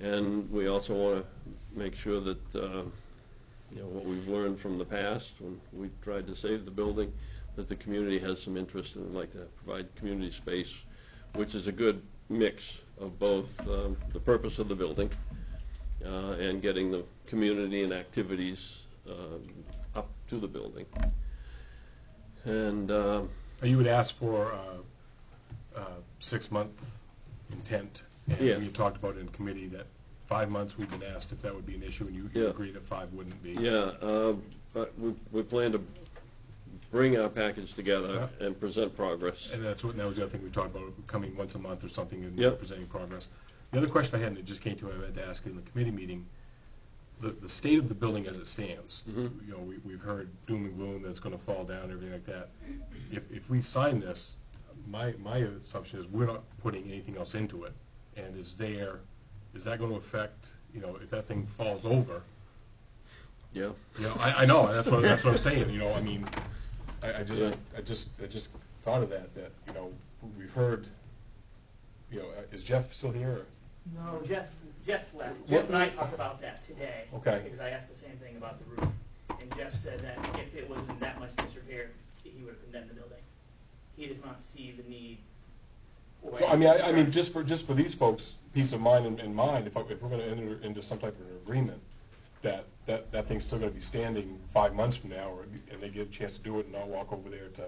And we also want to make sure that, uh, you know, what we've learned from the past, when we tried to save the building, that the community has some interest and would like to provide community space, which is a good mix of both um, the purpose of the building uh, and getting the community and activities um, up to the building. And um, You would ask for uh, a, a six-month intent. Yeah. And we talked about in committee that five months, we've been asked if that would be an issue, and you you Yeah. agreed that five wouldn't be. Yeah, uh, but we, we plan to bring our package together Yeah. and present progress. And that's what, and that was the other thing we talked about, coming once a month or something and Yep. presenting progress. The other question I had, and it just came to me, I had to ask in the committee meeting, the, the state of the building as it stands, you Mm-hmm. know, we, we've heard doom and gloom that it's gonna fall down, everything like that. If, if we sign this, my, my assumption is we're not putting anything else into it. And is there, is that gonna affect, you know, if that thing falls over, Yeah, you know, I, I know, that's what, that's what I'm saying, you know, I mean, I, I Yeah. just, I just, I just thought of that, that, you know, we've heard, you know, uh, is Jeff still here? No, Jeff, Jeff left. What- Jeff and I talked about that today. Okay. Because I asked the same thing about the roof, and Jeff said that if it was in that much disrepair, that he would have condemned the building. He does not see the need. or So, I mean, I, I concern. mean, just for, just for these folks, peace of mind in, in mind, if, I- if we're gonna enter into some type of an agreement, that, that, that thing's still gonna be standing five months from now, or, and they get a chance to do it, and I'll walk over there to,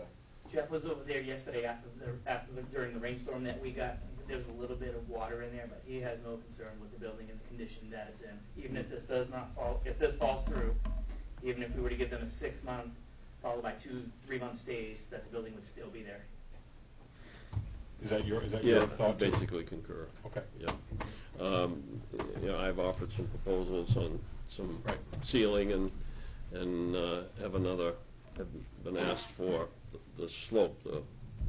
Jeff was over there yesterday after the, after the, during the rainstorm that we got. He said there was a little bit of water in there, but he has no concern with the building and the condition that it's in. Even if this does not fall, if this falls through, even if we were to give them a six-month, followed by two, three-month stays, that the building would still be there. is that your, is that your yeah, I thought? too? basically concur, Okay, yeah. Um, You know, I've offered some proposals on some Right. ceiling and, and uh, have another, have been asked for the- the slope, the,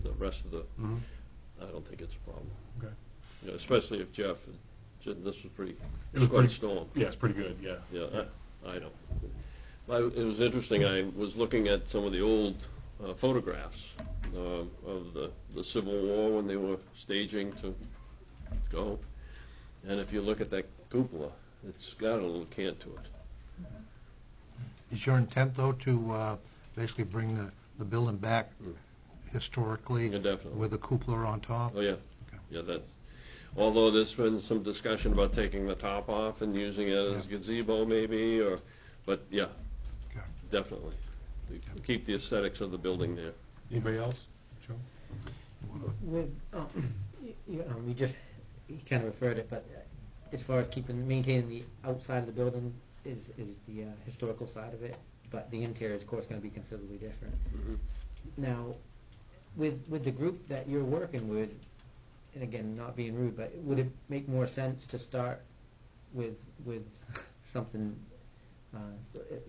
the rest of the, Mm-hmm. I don't think it's a problem. okay. You know, Especially if Jeff, this was pretty, It was quite a pretty- storm. Yeah, it's pretty good, yeah. Yeah, I, I know. I, it was interesting, I was looking at some of the old uh, photographs um, of the, the Civil War when they were staging to go. And if you look at that cupola, it's got a little cant to it. Is your intent, though, to uh, basically bring the, the building back historically? Yeah, definitely. With a cupola on top? Oh, yeah, yeah, that's, although there's been some discussion about taking the top off and using it as gazebo maybe, or, but yeah, Okay. definitely. Keep the aesthetics of the building there. Anybody else? Joe? With, uh, y- you know, we just, you kind of referred it, but uh, as far as keeping, maintaining the outside of the building is, is the uh, historical side of it, but the interior is, of course, going to be considerably different. Mhm. Now, with, with the group that you're working with, and again, not being rude, but would it make more sense to start with, with something, uh,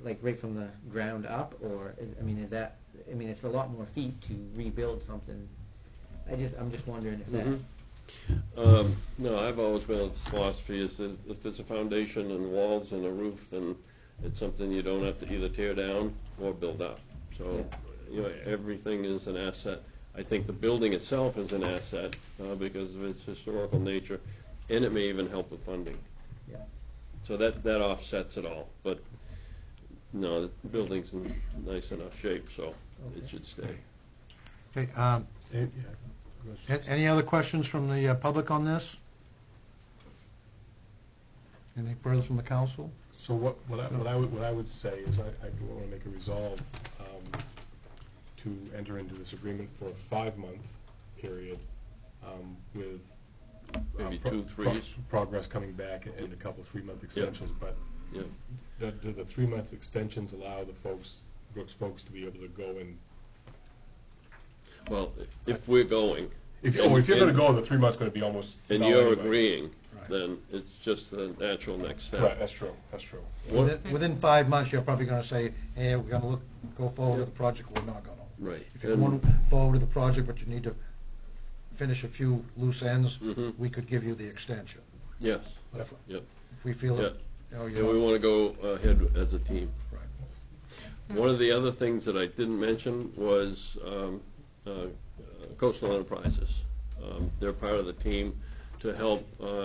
like right from the ground up, or, is- I mean, is that, I mean, it's a lot more feet to rebuild something. I just, I'm just wondering if Mm-hmm. that, Mhm. Um, No, I've always been of the philosophy is that if there's a foundation and walls and a roof, then it's something you don't have to either tear down or build up. So, you know, everything is an asset. I think the building itself is an asset uh, because of its historical nature, and it may even help with funding. yeah. So that, that offsets it all. But, no, the building's in nice enough shape, so it Okay. should stay. Okay, um, Yeah. a- Any other questions from the uh, public on this? Anything further from the council? So what, what I, what I would, what I would say is I, I want to make a resolve, um, to enter into this agreement for a five-month period, um, with. uh, Maybe pro- two pro- threes. Progress coming back and a couple three-month extensions, but Yeah. do, do the three-month extensions allow the folks, Brooks folks to be able to go and, Well, if we're going, if, you- oh, if you're And- gonna go, the three months gonna be almost. And null you're anyway. agreeing, Right. then it's just the natural next Right, step. that's true, that's true. One- Within- Within five months, you're probably going to say, hey, we're going to look, go forward with the project, we're not going to. Right. If you're going forward with the project, but you need to finish a few loose ends, Mhm. we could give you the extension. Yes, But If yep. if we feel it, you know, Yeah, we you're, want to go ahead as a team. right. One of the other things that I didn't mention was um, uh, Coastal Enterprises. Um, They're part of the team to help uh,